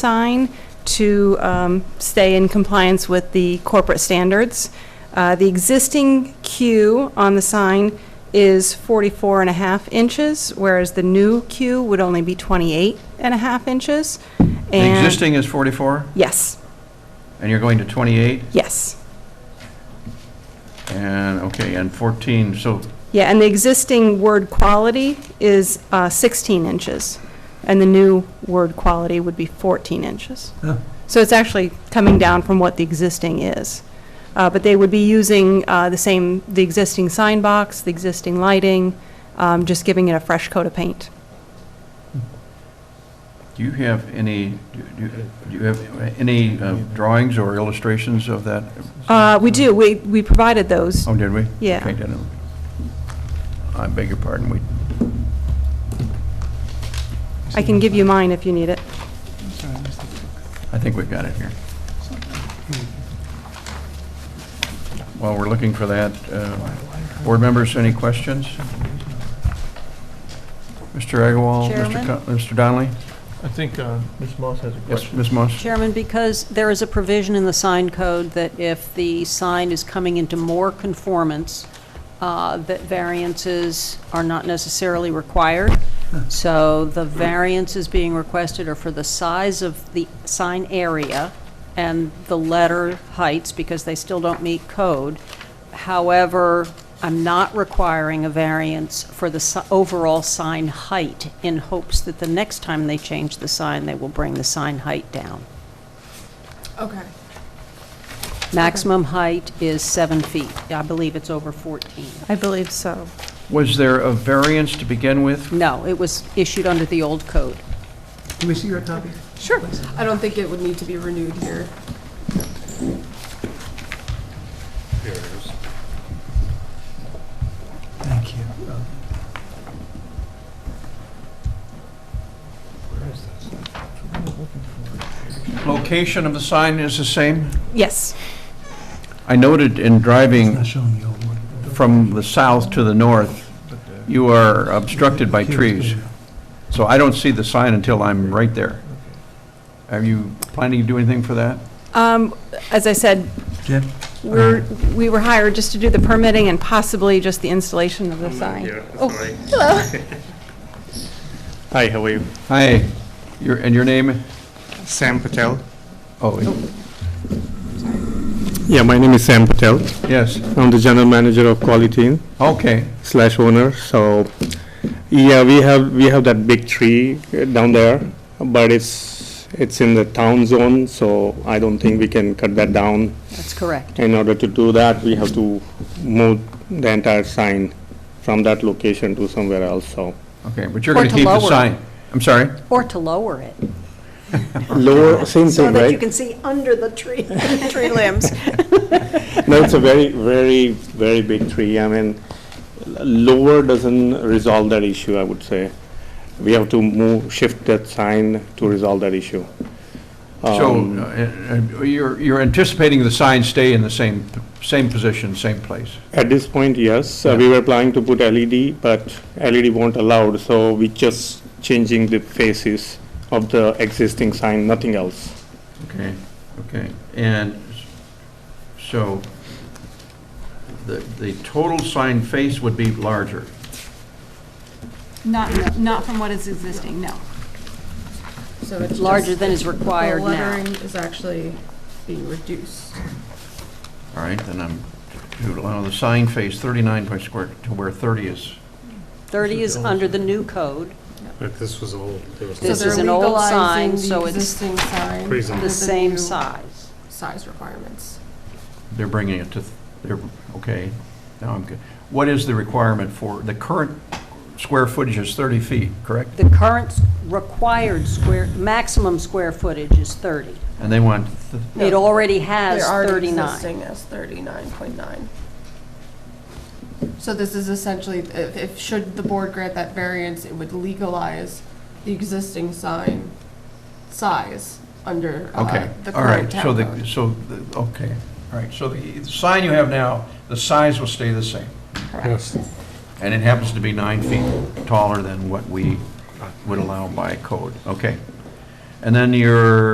sign to um, stay in compliance with the corporate standards. Uh, The existing queue on the sign is 44 and a half inches, whereas the new queue would only be 28 and a half inches. The And- existing is 44, Yes, and you're going to 28, yes. and, okay, and 14, so, Yeah, and the existing word quality is uh, 16 inches, and the new word quality would be 14 inches. Huh. So it's actually coming down from what the existing is. Uh, But they would be using uh, the same, the existing sign box, the existing lighting, um, just giving it a fresh coat of paint. do you have any, do you- do you have any uh, drawings or illustrations of that? Uh, We do, we we provided those. Oh, did we? Yeah. Okay, didn't we? I beg your pardon, we, I can give you mine if you need it. I think we've got it here. While we're looking for that, uh, board members, any questions? Mr. Agarwal? Mr. Chairman? Co- Mr. Donnelly? I think uh, Ms. Moss has a question. Yes, Ms. Moss? Chairman, because there is a provision in the sign code that if the sign is coming into more conformance, uh, that variances are not necessarily required. So the variances being requested are for the size of the sign area and the letter heights, because they still don't meet code. However, I'm not requiring a variance for the si- overall sign height in hopes that the next time they change the sign, they will bring the sign height down. Okay. Maximum height is seven feet. I believe it's over 14. I believe so. Was there a variance to begin with? No, it was issued under the old code. Can we see your copy? Sure. I don't think it would need to be renewed here. Thank you. Uh, Location of the sign is the same? Yes, I noted in It's driving not showing the old one. from the south to the north, you are obstructed by Here, trees, here. so I don't see the sign until I'm right there. Are you planning to do anything for that? Um, as I said, Jim? We're, we were hired just to do the permitting and possibly just the installation of the sign. Oh, Hi, how are you? Hi, your, and your name? Sam Patel. Oh, Yeah, my name is Sam Patel. yes, I'm the general manager of Quality Inn okay. slash owner. So, yeah, we have we have that big tree uh, down there, but it's it's in the town zone, so I don't think we can cut that down. That's correct. In order to do that, we have to move the entire sign from that location to somewhere else. So, Okay, but you're Or going to to keep the lower. sign? I'm sorry? Or to lower it. lower, same thing, right? see under the tree. Tree limbs. No, it's a very, very, very big tree. I mean, l- lower doesn't resolve that issue, I would say. We have to move, shift that sign to resolve that issue. So, Um, uh, uh, you're, you're anticipating the sign stay in the same, same position, same place? At this point, yes, uh, we were planning to put LED, but LED won't allowed, so we just changing the faces of the existing sign, nothing else. Okay, okay, and s- so the, the total sign face would be larger. Not, not from what is existing, no. So it's just- Larger than is required The now. lettering is actually being reduced. All right, then I'm, to allow the sign face 39 by square to where 30 is. 30 is under the new code. If this was old, there was. So This they're is an old sign, legalizing the so it's Existing sign. Reason. under The same new size. Size requirements. They're bringing it to, th- they're, okay, now I'm good. What is the requirement for, the current square footage is 30 feet, correct? The current required square, maximum square footage is 30. And they want, th- It already has They're already 39. existing as thirty-nine point nine. So this is essentially, if, if, should the board grant that variance, it would legalize the existing sign size under, uh, okay, the all current right, town so the, code. so, the- okay, all right. So the sign you have now, the size will stay the same? Yes. And it happens to be nine feet taller than what we would allow by code. Okay. And then your